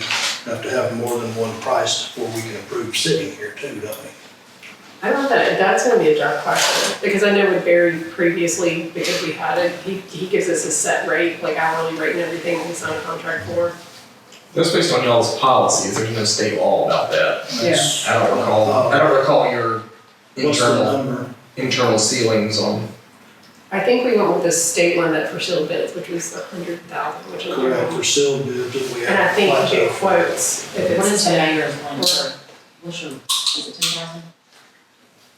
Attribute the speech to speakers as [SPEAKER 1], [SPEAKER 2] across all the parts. [SPEAKER 1] have to have more than one price before we can approve sitting here too, don't we?
[SPEAKER 2] I don't know, that, that's gonna be a tough question, because I know with Barry previously, because we had it, he, he gives us a set rate, like hourly rate and everything that we sign a contract for.
[SPEAKER 3] That's based on y'all's policies. There's no state law about that.
[SPEAKER 1] That's-
[SPEAKER 3] I don't recall. I don't recall your
[SPEAKER 1] What's the
[SPEAKER 3] internal
[SPEAKER 1] number?
[SPEAKER 3] internal ceilings on.
[SPEAKER 2] I think we went with the state one that for sealed bids, which was a hundred thousand, which is.
[SPEAKER 1] Correct, for sealed bids that we have.
[SPEAKER 2] And I think
[SPEAKER 1] like
[SPEAKER 2] you get
[SPEAKER 1] that.
[SPEAKER 2] quotes if
[SPEAKER 4] What is
[SPEAKER 2] it's
[SPEAKER 4] the
[SPEAKER 2] ten.
[SPEAKER 4] mayor's one for, what's your, is it ten thousand?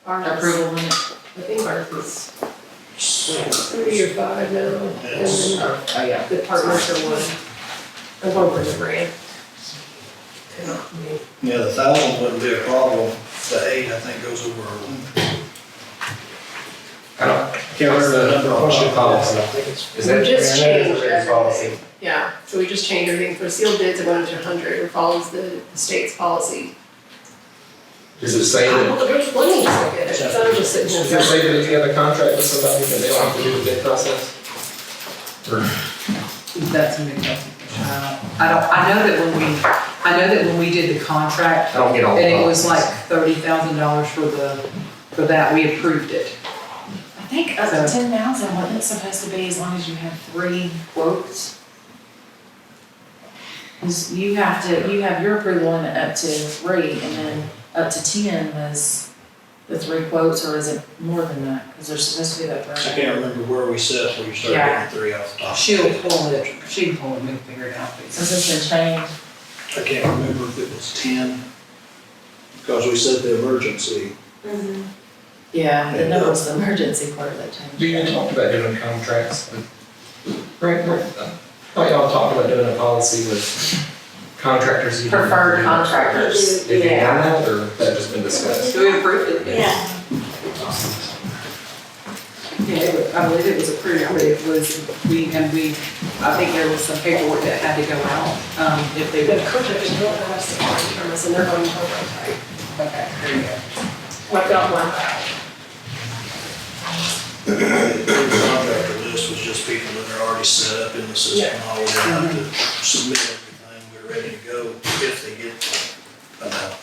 [SPEAKER 2] Ours,
[SPEAKER 4] Approval limit?
[SPEAKER 2] I think ours is three or five now, and
[SPEAKER 1] Yes.
[SPEAKER 2] then our-
[SPEAKER 4] Oh, yeah.
[SPEAKER 2] the partners are one, I'm going for the brand. Yeah, I mean,
[SPEAKER 1] Yeah, the thousand wouldn't be a problem, the eight, I think, goes over our limit.
[SPEAKER 3] I don't. Can't remember the number on
[SPEAKER 5] What's your
[SPEAKER 3] your policy.
[SPEAKER 5] I think it's.
[SPEAKER 3] Is
[SPEAKER 2] We
[SPEAKER 3] that
[SPEAKER 2] just
[SPEAKER 5] I mean, that is a
[SPEAKER 2] changed
[SPEAKER 5] written policy.
[SPEAKER 2] everything. Yeah, so we just changed everything for sealed bids, it went up to hundred, it follows the the state's policy.
[SPEAKER 3] does it say that?
[SPEAKER 2] Oh, There's plenty of it, it's not just sitting
[SPEAKER 3] Does
[SPEAKER 2] there.
[SPEAKER 3] it say that if you have a contract with somebody that they don't have to do the bid process? Or
[SPEAKER 6] That's a new question. Uh, I don't, I know that when we, I know that when we did the contract,
[SPEAKER 3] I don't get all.
[SPEAKER 6] and
[SPEAKER 3] the
[SPEAKER 6] it was like
[SPEAKER 3] policies.
[SPEAKER 6] thirty thousand dollars for the, for that, we approved it.
[SPEAKER 4] I think up to ten thousand, wasn't it supposed to be as long as you have three quotes? 'Cause you have to, you have your approval limit up to three, and then up to ten was the three quotes, or is it more than that? Because there's supposed to be that
[SPEAKER 1] I
[SPEAKER 4] threshold.
[SPEAKER 1] can't remember where we set, where you started
[SPEAKER 4] Yeah.
[SPEAKER 1] getting three off the top.
[SPEAKER 6] She'll pull it, she can pull it, we can figure it out.
[SPEAKER 4] Since it's been changed,
[SPEAKER 1] I can't remember if it was ten, because we said the emergency.
[SPEAKER 4] yeah, the number was the emergency part that changed.
[SPEAKER 3] Do you talk about doing contracts with? Right, right. I thought y'all talked about doing a policy with contractors. you-
[SPEAKER 4] Preferred contractors.
[SPEAKER 3] Have you done that or has that just been discussed?
[SPEAKER 6] We approved it.
[SPEAKER 7] Yeah,
[SPEAKER 6] Yeah, it was- I believe it was approved, but it was, we, and we, I think there was some paperwork that had to go out, um, if they
[SPEAKER 2] The
[SPEAKER 6] would.
[SPEAKER 2] contract is not gonna have to come from us, and they're going to contract,
[SPEAKER 6] Okay, there you go.
[SPEAKER 2] like that one.
[SPEAKER 1] The contractor list was just people that are already set up in the system, all we have to submit everything, we're ready to go if they get announced.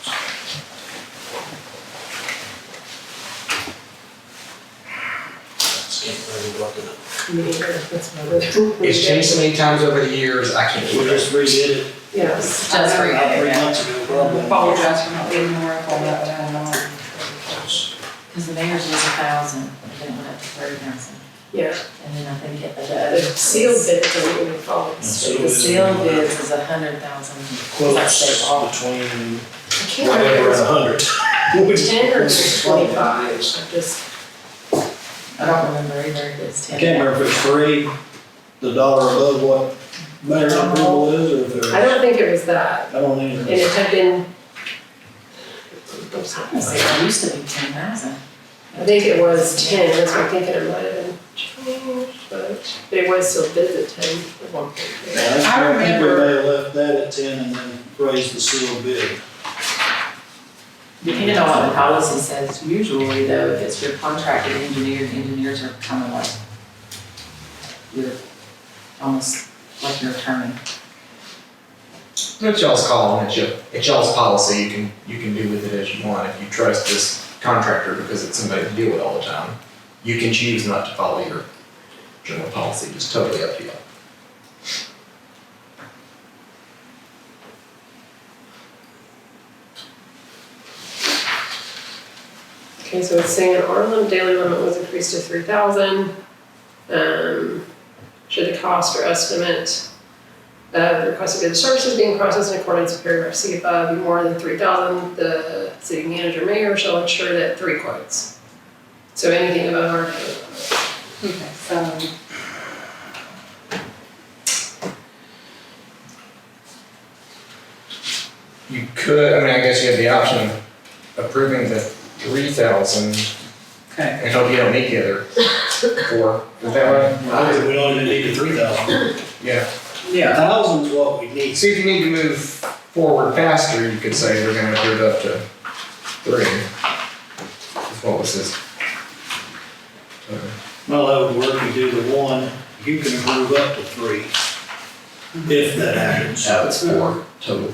[SPEAKER 1] Just Can't remember what the,
[SPEAKER 2] Me neither, that's my other.
[SPEAKER 3] It's changed so many times over the years, I can't
[SPEAKER 1] we
[SPEAKER 3] keep
[SPEAKER 1] just
[SPEAKER 3] it.
[SPEAKER 1] redid it
[SPEAKER 2] Yes.
[SPEAKER 4] Just for
[SPEAKER 1] about three months ago, probably.
[SPEAKER 6] Apologize for not being more up on that, but I don't know.
[SPEAKER 4] Because the mayor's was a thousand, and then it went up to thirty thousand,
[SPEAKER 2] Yeah,
[SPEAKER 4] and then I think it, uh, the
[SPEAKER 2] the
[SPEAKER 4] other.
[SPEAKER 2] sealed bids are going to follow. the state.
[SPEAKER 4] The sealed bids is a hundred thousand.
[SPEAKER 1] Quotes between
[SPEAKER 2] I can't
[SPEAKER 1] whatever
[SPEAKER 2] remember, if it was
[SPEAKER 1] and a hundred.
[SPEAKER 2] ten or twenty-five, I just,
[SPEAKER 4] I don't remember either if it's
[SPEAKER 1] I
[SPEAKER 4] ten.
[SPEAKER 1] can't remember if it's three, the dollar above what mayor approval is, or if there's,
[SPEAKER 2] I
[SPEAKER 1] I
[SPEAKER 2] don't think it was that,
[SPEAKER 1] don't even.
[SPEAKER 2] and it had been.
[SPEAKER 4] I wanna say it used to be ten thousand.
[SPEAKER 2] I think it was ten, that's what I'm thinking, it might have been changed, but but it was still bid at ten at one point.
[SPEAKER 1] Yeah,
[SPEAKER 6] I
[SPEAKER 1] I think we
[SPEAKER 6] remember-
[SPEAKER 1] may have left that at ten and then raised the sealed bid.
[SPEAKER 4] Depending on what the policy says, usually though, if it's your contracted engineer, engineers are kind of like your, almost like your attorney.
[SPEAKER 3] It's y'all's call and it's your, it's y'all's policy. You can, you can do with it as you want. If you trust this contractor because it's somebody you deal with all the time, you can choose not to follow your general policy, just totally up to you.
[SPEAKER 2] Okay, so it's saying an hour limit, daily limit was increased to three thousand. Um, should the cost or estimate of the requested bid services being processed in accordance with paragraph C above be more than three thousand, the city manager mayor shall ensure that three quotes. So anything above our daily limit.
[SPEAKER 4] Okay, so.
[SPEAKER 6] um,
[SPEAKER 3] You could, I mean, I guess you have the option of approving the three thousand
[SPEAKER 6] Okay.
[SPEAKER 3] and hope you don't meet the other four. Is that right?
[SPEAKER 1] I think we don't even need the three thousand.
[SPEAKER 3] Yeah.
[SPEAKER 6] Yeah.
[SPEAKER 1] Thousand's what we need.
[SPEAKER 3] See, if you need to move forward faster, you could say we're gonna approve up to three. Is what was Uh, his.
[SPEAKER 1] Well, that would work, you do the one, you can approve up to three, if that happens.
[SPEAKER 3] No, it's four total.